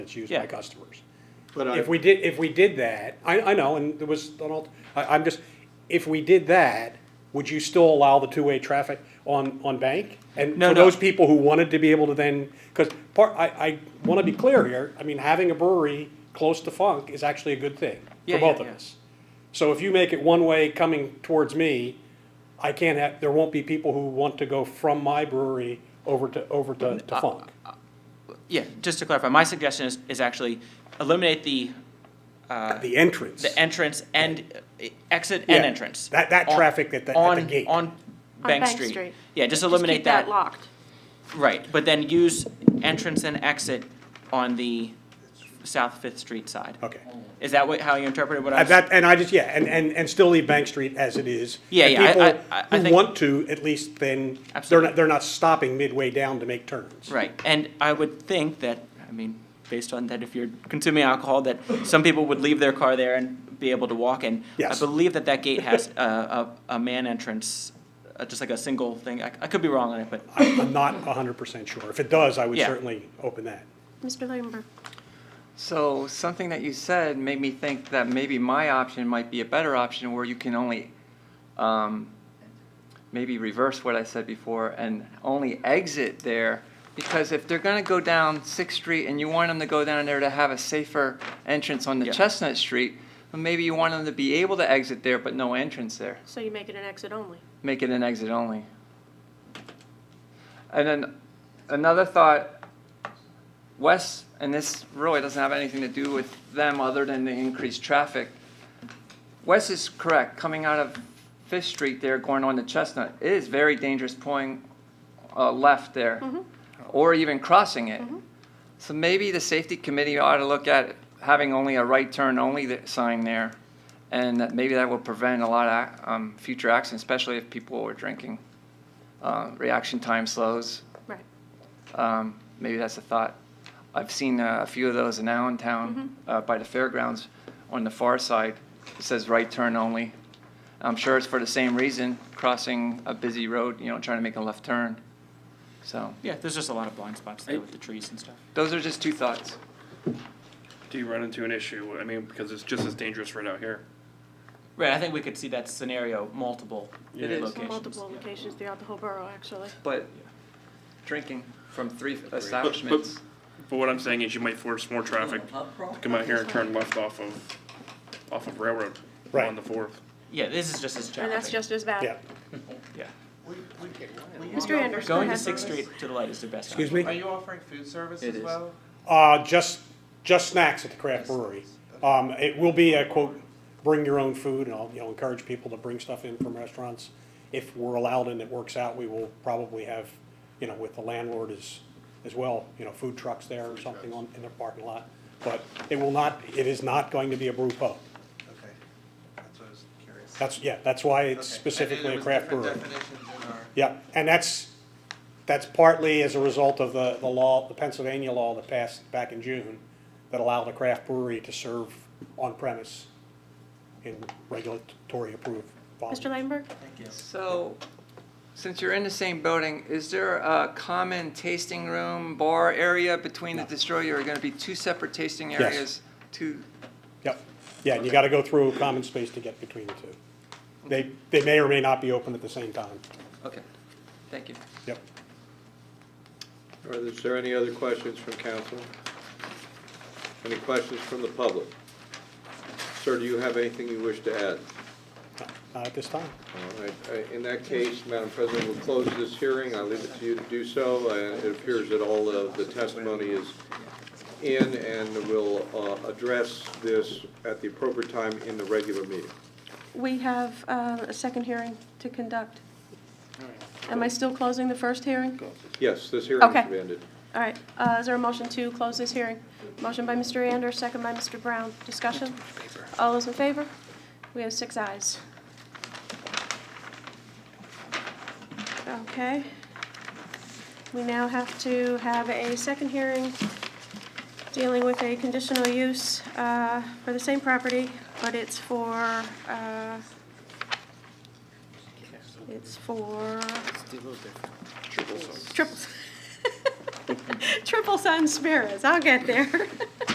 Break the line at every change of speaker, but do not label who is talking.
that's used
Yeah.
by customers.
But I-
If we did, if we did that, I, I know, and there was, an alt- I, I'm just, if we did that, would you still allow the two-way traffic on, on Bank? And
No,
for
no.
those people who wanted to be able to then, because part, I, I want to be clear here, I mean, having a brewery close to Funk is actually a good thing
Yeah,
for
yeah,
both of
yeah.
us. So if you make it one-way coming towards me, I can't have, there won't be people who want to go from my brewery over to, over to, to Funk.
Yeah, just to clarify, my suggestion is, is actually eliminate the, uh,
The entrance.
the entrance and uh, exit
Yeah,
and entrance.
that- that
On-
traffic at the- at the
on-
gate.
On Bank
Bank
Street.
Street.
Yeah, just
Just
eliminate
keep that
that.
locked.
Right, but then use entrance and exit on the South Fifth Street side.
Okay.
Is that what, how you interpreted what I
And
was?
Uh, that, and I just, yeah, and, and, and still leave Bank Street as it is.
Yeah,
And
yeah, I-
people
I- I- I
who
think-
want to, at least then, they're
Absolutely.
not, they're not stopping midway down to make turns.
Right, and I would think that, I mean, based on that, if you're consuming alcohol, that some people would leave their car there and be able to walk in.
Yes.
I believe that that gate has a, a, a man entrance, uh, just like a single thing. I, I could be wrong on it, but
I- I'm not hundred percent sure. If it does, I would
Yeah.
certainly open that.
Mr. Lambert,
So something that you said made me think that maybe my option might be a better option where you can only, um, maybe reverse what I said before and only exit there. Because if they're gonna go down Sixth Street and you want them to go down there to have a safer entrance on the
Yeah.
Chestnut Street, then maybe you want them to be able to exit there, but no entrance there.
so you make it an exit only.
Make it an exit only. And then another thought, West, and this really doesn't have anything to do with them other than the increased traffic. Wes is correct, coming out of Fifth Street there, going on to Chestnut, it is very dangerous pulling uh, left there, or even crossing it. So maybe the safety committee ought to look at having only a right turn only th- sign there, and that maybe that will prevent a lot of ac- um, future accidents, especially if people are drinking. Uh, Reaction time slows,
Right.
um, maybe that's a thought. I've seen uh, a few of those in Allentown, uh, by the fairgrounds, on the far side. It says right turn only. I'm sure it's for the same reason, crossing a busy road, you know, trying to make a left turn. So,
yeah, there's just a lot of blind spots there with the trees and stuff.
those are just two thoughts.
Do you run into an issue? I mean, because it's just as dangerous right out here.
Right, I think we could see that scenario multiple
It is.
locations.
Multiple locations throughout the whole borough, actually.
But drinking from three
But,
establishments.
but, but what I'm saying is you might force more traffic to come out here and turn left off of, off of Railroad
Right.
on the fourth.
Yeah, this is just as challenging.
And that's just as bad.
Yeah.
Yeah,
Mr. Anders, go
going to
ahead.
Sixth Street to the light is the best.
Excuse
option.
Are
me?
you offering food service
It
as
is.
well?
Uh, just, just snacks at the craft brewery. Um, it will be a quote, bring your own food and I'll, you know, encourage people to bring stuff in from restaurants. If we're allowed and it works out, we will probably have, you know, with the landlord as, as well, you know, food trucks there or something on, in the parking lot. But it will not, it is not going to be a brew pub.
Okay, that's what I was curious.
That's, yeah, that's why
Okay.
it's
And then
specifically
there
a
was
craft
different
brewery.
definitions in our-
Yeah, and that's, that's partly as a result of the, the law, the Pennsylvania law that passed back in June that allowed a craft brewery to serve on premise in regulatory approved volumes.
Mr. Lambert,
So, since you're in the same building, is there a common tasting room, bar area between the destroyer? Are gonna be two separate tasting
Yes.
areas? Two,
Yep, yeah, and you gotta go through a common space to get between the two. They, they may or may not be open at the same time,
okay, thank you.
yep.
All right, is there any other questions from council? Any questions from the public? Sir, do you have anything you wish to add?
Not at this time.
All right, uh, in that case, Madam President, we'll close this hearing. I leave it to you to do so. Uh, It appears that all of the testimony is in, and we'll uh, address this at the appropriate time in the regular meeting.
we have uh, a second hearing to conduct. Am I still closing the first hearing?
Yes, this hearing
Okay.
is ended.
All right, uh, is there a motion to close this hearing? Motion by Mr. Anders, second by Mr. Brown. Discussion? All those in favor? We have six ayes. Okay. We now have to have a second hearing dealing with a conditional use uh, for the same property, but it's for, uh, it's for
Triple sum.
triples. Triple Sun Sparrows, I'll get there.